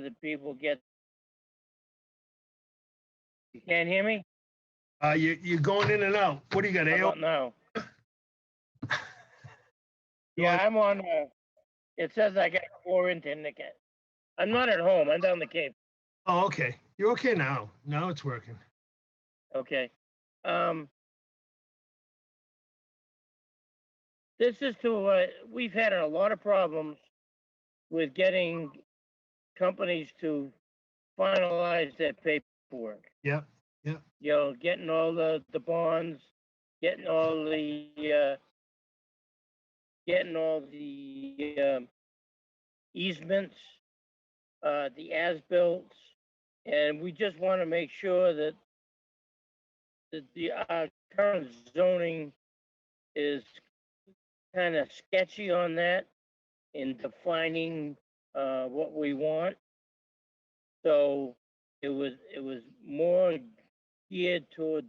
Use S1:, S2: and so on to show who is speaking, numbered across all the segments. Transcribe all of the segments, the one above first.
S1: the people get. You can't hear me?
S2: Uh, you, you're going in and out. What do you got,
S1: I
S2: AOL?
S1: don't know.
S2: You
S1: Yeah,
S2: on-
S1: I'm on, uh, it says I got quarantine again. I'm not at home, I'm down the Cape,
S2: Oh, okay. You're okay now. Now it's working.
S1: okay? Um. This is to, uh, we've had a lot of problems with getting companies to finalize their paperwork.
S2: Yep, yep.
S1: You know, getting all the, the bonds, getting all the, uh, getting all the, um, easements, uh, the as-built, and we just want to make sure that that the, our current zoning is kind of sketchy on that in defining, uh, what we want. So it was, it was more geared toward,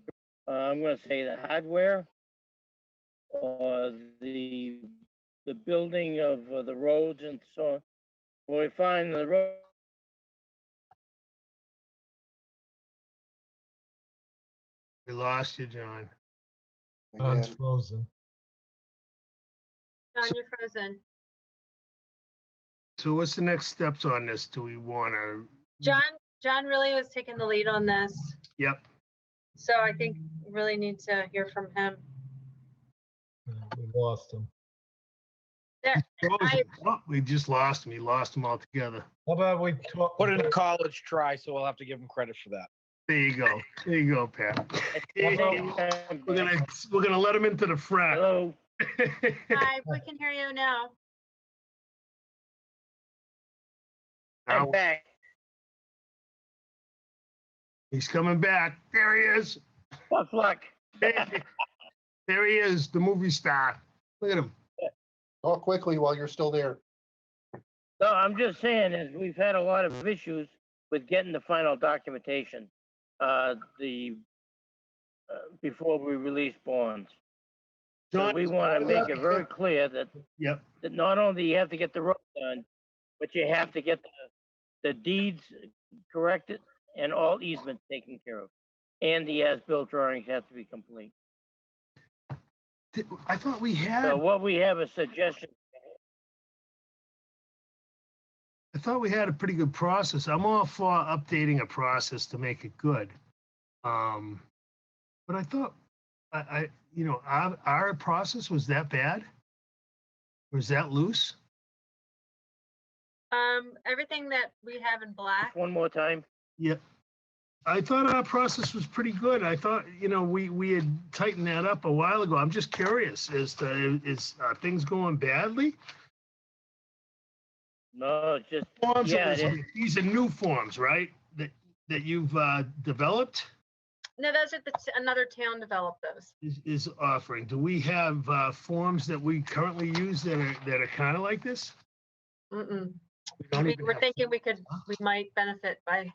S1: uh, I'm gonna say the hardware or the, the building of uh, the roads and so on. When we find the road,
S2: We lost you, John.
S3: John's
S4: Again,
S3: frozen.
S2: So-
S5: John,
S2: Mm-hmm.
S5: you're frozen.
S2: So what's the next steps on this? Do we want to?
S5: John, John really was taking the lead on this.
S2: Yep.
S5: So I think really need to hear from him.
S3: Yeah, We lost him.
S5: I-
S2: Oh, We just lost him. We lost him altogether.
S3: How about we talk?
S4: Put in a college try, so we'll have to give him credit for that.
S2: There you go. There you go, Pat. There you go. We're
S1: Hello?
S2: gonna, we're gonna let him into the frat.
S5: Hi, we can hear you now.
S1: I'm
S2: Now,
S1: back.
S2: He's coming back. There he is.
S1: Tough luck.
S2: There he is, the movie star. Look at him.
S4: Talk quickly while you're still there.
S1: No, I'm just saying is we've had a lot of issues with getting the final documentation, uh, the, uh, before we release bonds. So
S2: John,
S1: we want to make it very clear that.
S2: Yep.
S1: That not only you have to get the road done, but you have to get the, the deeds corrected and all easements taken care of. And the as-built drawings have to be complete.
S2: th- I thought we had,
S1: So
S5: Um,
S1: what we have is suggestion,
S2: I thought we had a pretty good process. I'm all for updating a process to make it good. Um, but I thought, I, I, you know, our, our process was that bad? Was that loose?
S5: Um, everything that we have in black,
S1: one more time.
S2: I thought our process was pretty good. I thought, you know, we, we had tightened that up a while ago. I'm just curious as to, is, are things going badly?
S1: No, it's just,
S2: Forms,
S1: Yeah,
S2: are-
S1: it is.
S2: these are new forms, right? That, that you've, uh, developed?
S5: no, those are the, t- another town developed those.
S2: is, is offering. Do we have uh, forms that we currently use that are, that are kind of like this?
S5: Mm-mm.
S2: We
S5: I
S2: don't
S5: mean,
S2: even
S5: We're
S2: have-
S5: thinking we could, we might benefit by,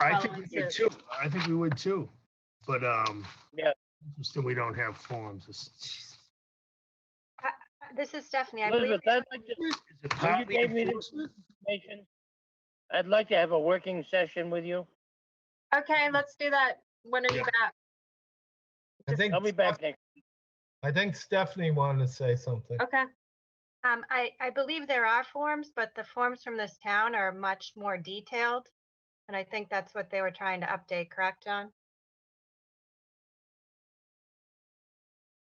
S2: I think we would
S5: following
S2: too. I think we would too. But, um,
S1: Yeah.
S2: Interesting, we don't have forms. Is
S5: this is Stephanie, I believe.
S1: Elizabeth, I'd like to
S2: is it partly
S1: gave me the-
S2: enforcement?
S1: information. I'd like to have a working session with you.
S5: Okay, let's do that. When are you
S2: Yeah.
S5: back?
S3: I think,
S1: I'll be back next.
S3: I think Stephanie wanted to say something.
S5: Okay.
S6: Um, I, I believe there are forms, but the forms from this town are much more detailed. And I think that's what they were trying to update, correct, John?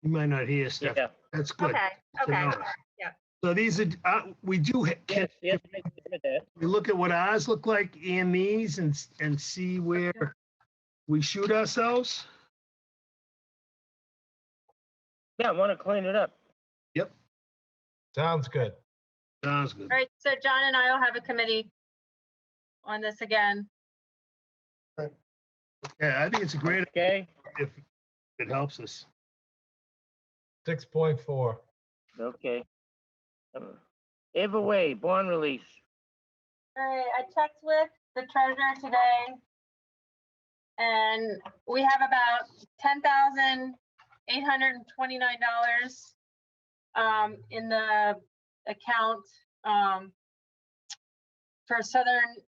S2: You might not hear stuff.
S1: Yeah,
S2: That's good.
S6: Okay,
S2: to
S6: okay.
S2: know. So these are, uh, we do, ha- can
S1: yes, yes, make it with that.
S2: we look at what ours look like and these and, s- and see where we shoot ourselves?
S1: Yeah, I want to clean it up.
S3: Sounds good.
S2: Sounds good.
S5: All right, so John and I will have a committee on this again.
S2: Yeah, I think it's a great,
S1: Okay,
S2: if it helps us.
S3: Six point four.
S1: okay. Um, Either way, bond release.
S5: All right, I checked with the treasurer today. And we have about ten thousand eight hundred and twenty-nine dollars um, in the account, um, for Southern